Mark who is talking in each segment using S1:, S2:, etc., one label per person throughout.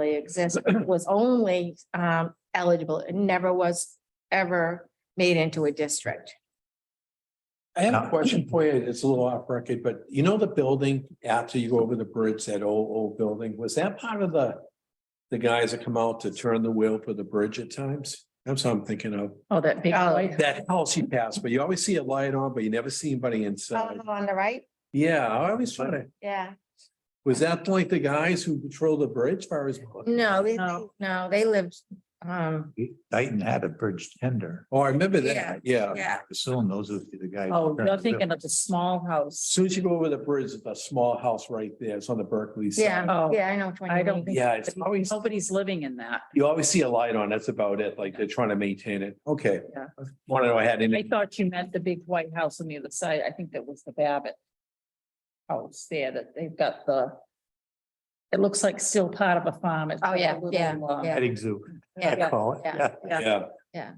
S1: really exist, was only um eligible. It never was ever made into a district.
S2: I have a
S3: Yeah.
S2: question for you. It's a little off record, but you know the building after you go over the bridge, that old, old building, was that part of the? The guys that come out to turn the wheel for the bridge at times? That's what I'm thinking of.
S4: Oh, that big
S1: Oh.
S4: light.
S2: That house you pass, but you always see a light on, but you never see anybody inside.
S1: Oh, On the right,
S2: Yeah, I always thought it,
S1: yeah.
S2: was that like the guys who patrol the bridge far as?
S1: No, they,
S4: No.
S1: no, they lived, um,
S3: Dayton had a bridge tender.
S2: Oh, I remember that, yeah.
S1: yeah.
S3: I assume those are the guys.
S4: Oh, you're thinking of the small house.
S2: Soon as you go over the bridge, it's a small house right there. It's on the Berkeley side.
S1: Yeah,
S4: Oh,
S1: yeah, I know. which one you
S4: I don't
S1: mean.
S4: think.
S2: Yeah, it's always-
S4: Nobody's living in that.
S2: You always see a light on, that's about it, like they're trying to maintain it, okay.
S4: Yeah.
S2: Want to know I had
S4: I
S2: any,
S4: thought you meant the big white house on the other side. I think that was the Babbitt. House there that they've got the. It looks like still part of a farm. It's
S1: Oh,
S4: got a
S1: yeah,
S4: little,
S1: yeah,
S4: um,
S1: yeah.
S3: Petting zoo. I
S1: Yeah,
S3: call it,
S1: yeah.
S3: yeah.
S4: yeah,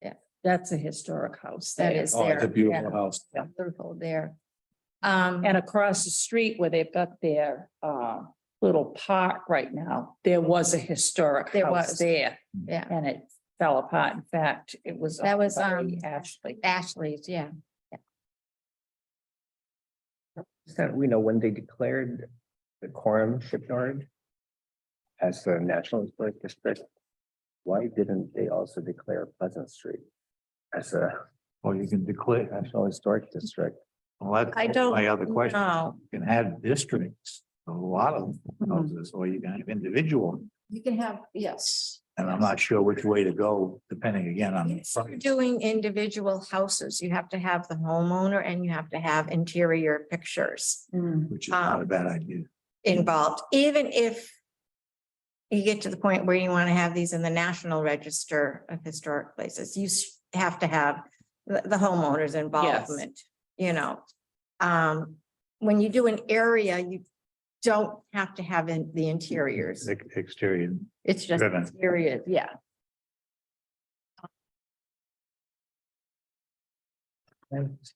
S2: yeah,
S4: That's a historic house.
S1: that is
S2: oh, it's a
S1: there.
S2: beautiful house.
S1: Yeah, Beautiful there. Um,
S4: And across the street where they've got their uh little park right now, there was a historic
S1: There
S4: house
S1: was.
S4: there.
S1: Yeah.
S4: And it fell apart. In fact, it was.
S1: That was,
S4: owned
S1: um,
S4: by Ashley.
S1: Ashley's, yeah.
S5: So we know when they declared the Quorum Shipyard as the National Historic District. Why didn't they also declare Pleasant Street as a
S3: Or you can declare,
S5: National Historic District?
S3: well, that's.
S1: I don't
S3: My other question,
S1: No,
S3: you can have districts, a lot of
S1: Mm-hmm. Hmm.
S3: houses, or you can have individual.
S1: you can have, yes.
S3: And I'm not sure which way to go, depending again on.
S1: If you're Doing individual houses, you have to have the homeowner and you have to have interior pictures
S3: Which is
S1: um,
S3: not a bad idea.
S1: involved, even if you get to the point where you want to have these in the National Register of Historic Places, you s- have to have the, the homeowner's involvement, you know. Um, when you do an area, you don't have to have in the interiors.
S3: Ex- Exterior.
S1: It's just
S3: Driven.
S1: interiors, yeah.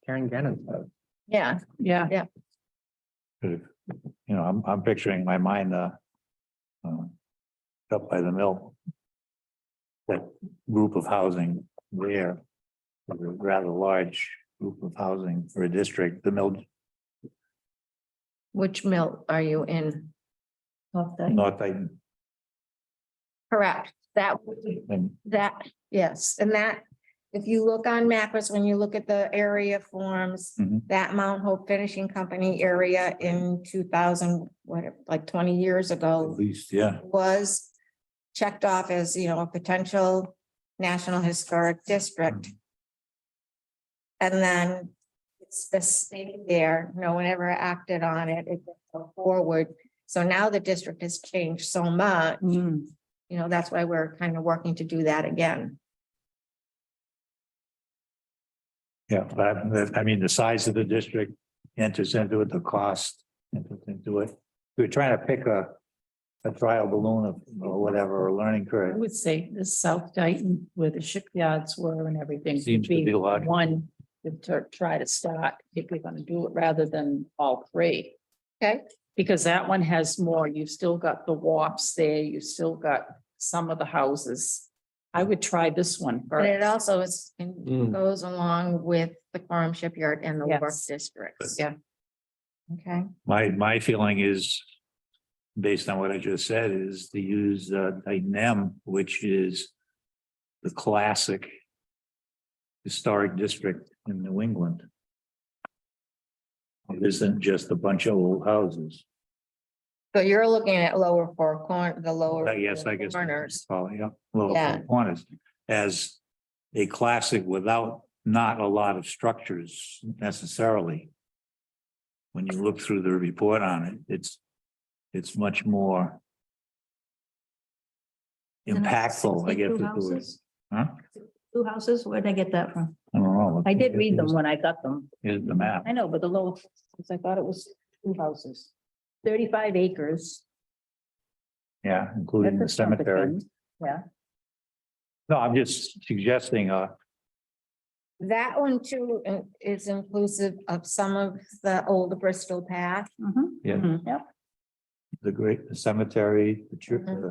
S5: Karen Gannon. vote.
S1: Yeah,
S4: Yeah.
S3: You know, I'm, I'm picturing in my mind, uh, uh, up by the mill. That group of housing there, a rather large group of housing for a district, the mill,
S1: which mill are you in?
S3: North Dayton.
S1: Correct, that would be
S3: and
S1: That, yes, and that, if you look on mappers, when you look at the area forms,
S3: Mhm.
S1: that Mount Hope Finishing Company area in two thousand, what, like twenty years
S3: At
S1: ago
S3: least, yeah,
S1: was checked off as, you know, a potential National Historic District. And then it's the state there, no one ever acted on it, it didn't go forward. So now the district has changed so much you know, that's why we're kind of working to do that again.
S3: yeah, but I- I mean, the size of the district enters into it, the cost enters into it. We're trying to pick a, a trial balloon of- or whatever, or learning
S4: I
S3: curve.
S4: would say this South Dayton where the shipyards were and everything. would
S3: Seems to be logical.
S4: One to try to start if we're gonna do it rather than all three.
S1: Okay.
S4: Because that one has more. You've still got the warps there. You've still got some of the houses. I would try this one
S1: But it
S4: first.
S1: also is,
S2: Mm.
S1: goes along with the Quorum Shipyard and the work
S4: Yes.
S1: districts.
S4: Yeah.
S1: Okay,
S3: My, my feeling is, based on what I just said, is to use uh, Titan M, which is the classic historic district in New England. It isn't just a bunch of old houses.
S1: so you're looking at lower four corner, the lower.
S3: I guess, Uh, I guess.
S1: Corners,
S3: Following up, little
S1: Yeah.
S3: corners, as a classic without not a lot of structures necessarily. When you look through the report on it, it's, it's much more impactful, I guess. is the word. Huh?
S6: Two houses, where'd I get that from?
S3: I don't know.
S6: I did read them when I got them.
S3: Is the map.
S6: I know, but the lower, I thought it was two houses. Thirty-five acres.
S3: Yeah, including the
S6: That's not the
S3: cemetery.
S6: thing. Yeah.
S3: No, I'm just suggesting, uh,
S1: that one too uh, is inclusive of some of the old Bristol path.
S6: Mhm.
S3: Yeah.
S6: Yep.
S3: the great the cemetery, the church,
S1: Mhm.
S6: Mm-hmm.
S3: the